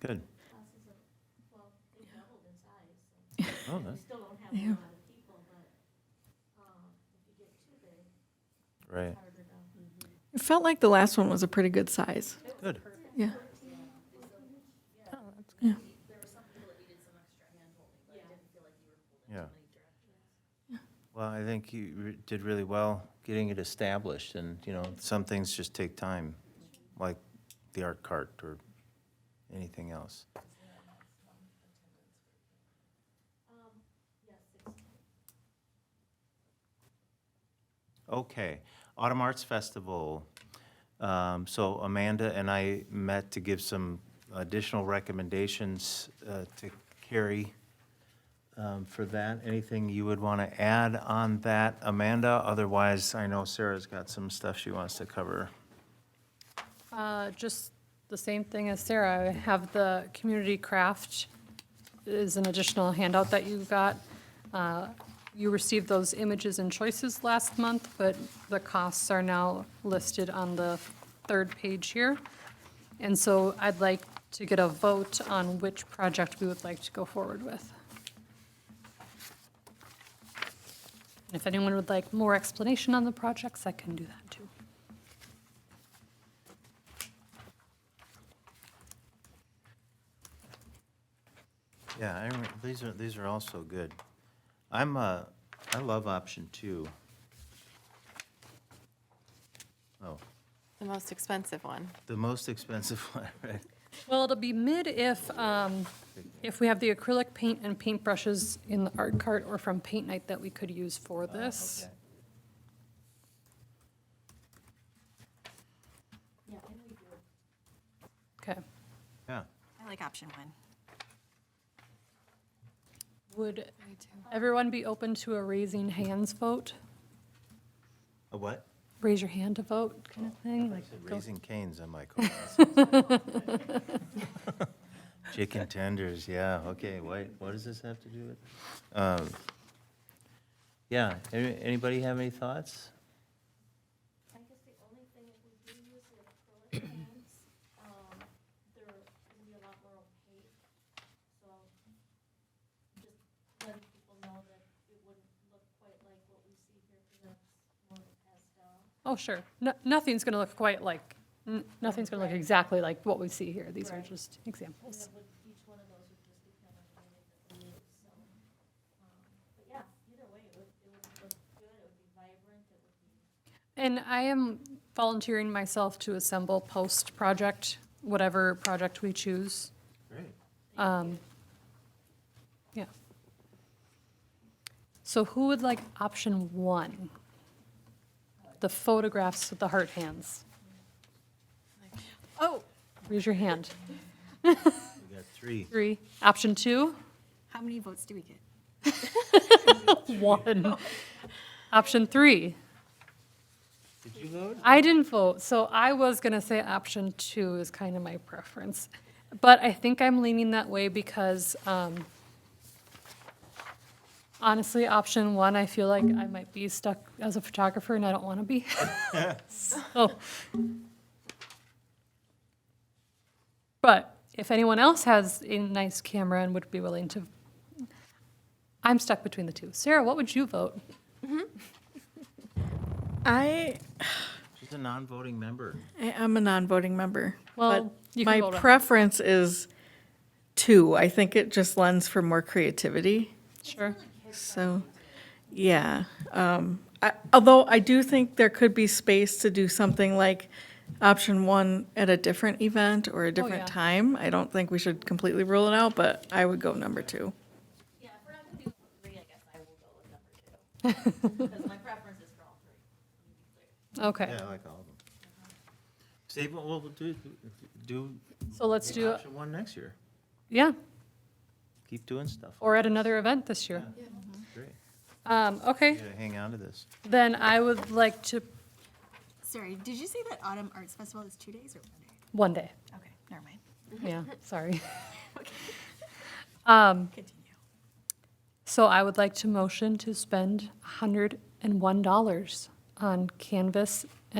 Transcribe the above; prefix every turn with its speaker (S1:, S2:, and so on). S1: Good.
S2: houses are, well, they doubled in size, so
S1: Oh,
S2: we
S1: that's
S2: still don't have
S3: Yeah.
S2: a lot of people, but, um, if you get too big,
S1: right.
S2: it's harder to.
S3: It felt like the last one was a pretty good size.
S1: Good.
S3: Yeah.
S1: Yeah. Well, I think you re- did really well getting it established and, you know, some things just take time, like the art cart or anything else. Okay, Autumn Arts Festival. Um, So Amanda and I met to give some additional recommendations uh, to Carrie um, for that. Anything you would want to add on that, Amanda? Otherwise, I know Sarah's got some stuff she wants to cover.
S4: Uh, Just the same thing as Sarah, I have the community craft is an additional handout that you got. Uh, You received those images and choices last month, but the costs are now listed on the third page here. And so I'd like to get a vote on which project we would like to go forward with. And If anyone would like more explanation on the projects, I can do that too.
S1: Yeah, I, rem- these are, these are also good. I'm, uh, I love option two. Oh,
S5: The most expensive one.
S1: the most expensive one, right?
S4: Well, it'll be mid if, um, if we have the acrylic paint and paintbrushes in the art cart or from paint night that we could use
S1: Oh,
S4: for this. Okay.
S1: Yeah,
S5: I like option one.
S4: Would everyone be open to a raising hands vote?
S1: a what?
S4: Raise your hand to vote kind of thing?
S1: I
S4: Like,
S1: said
S4: go-
S1: Raising Cane's "Oh, on my call. Chicken tenders, yeah, okay, wait, what does this have to do with? um, Yeah, any- anybody have any thoughts?
S2: I guess the only thing, if we do use the acrylic paints, um, they're gonna be a lot more opaque, so just letting people know that it wouldn't look quite like what we see here, because that's more pastel.
S4: Oh, sure. No, nothing's going to look quite like, n- nothing's going to look exactly like what we see here. These are just
S2: And
S4: examples.
S2: it would, each one of those would just become a unit that we use, so. um, But yeah, either way, it would, it would look good, it would be vibrant, it would be.
S4: And I am volunteering myself to assemble post-project, whatever project we choose.
S1: Great.
S4: Um, Yeah. So who would like option one? The photographs with the heart hands. Oh, raise your hand.
S1: We got three.
S4: Three. Option two,
S6: How many votes do we get?
S4: one. Option three,
S1: Did you vote?
S4: I didn't vote, so I was gonna say option two is kind of my preference. But I think I'm leaning that way because, um, honestly, option one, I feel like I might be stuck as a photographer and I don't want to be. So. But if anyone else has a nice camera and would be willing to, I'm stuck between the two. Sarah, what would you vote?
S3: I,
S1: She's a non-voting member.
S3: I am a non-voting member. but
S4: Well, you can
S3: My
S4: vote on-
S3: preference is two. I think it just lends for more creativity.
S4: Sure.
S3: So, yeah. Um, I, although I do think there could be space to do something like option one at a different event or a
S4: Oh, yeah.
S3: different time. I don't think we should completely rule it out, but I would go number two.
S2: Yeah, if we're not gonna do three, I guess I will go with number two. Because my preference is for all three.
S4: Okay.
S1: Yeah, I like all of them. Save, what we'll do, do
S4: So let's do,
S1: option one next year.
S4: yeah,
S1: Keep doing stuff.
S4: or at another event this year.
S1: Great.
S4: Um,
S1: You
S4: okay,
S1: gotta hang on to this.
S4: then I would like to,
S6: Sorry, did you say that Autumn Arts Festival is two days or one day?
S4: one day,
S6: Okay, never mind.
S4: yeah, sorry.
S6: Continue.
S4: So I would like to motion to spend hundred and one dollars on canvas